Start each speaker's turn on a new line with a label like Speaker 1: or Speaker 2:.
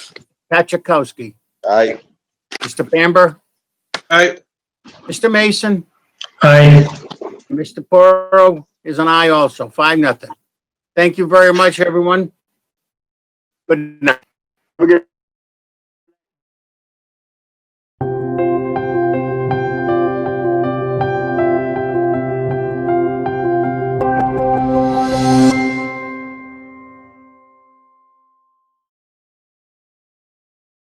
Speaker 1: Pat Chakowski,
Speaker 2: Aye.
Speaker 1: Mr. Bamber,
Speaker 2: Aye.
Speaker 1: Mr. Mason,
Speaker 3: Aye.
Speaker 1: Mr. Porro is an aye also, five nothing. Thank you very much, everyone. Good night. Have a good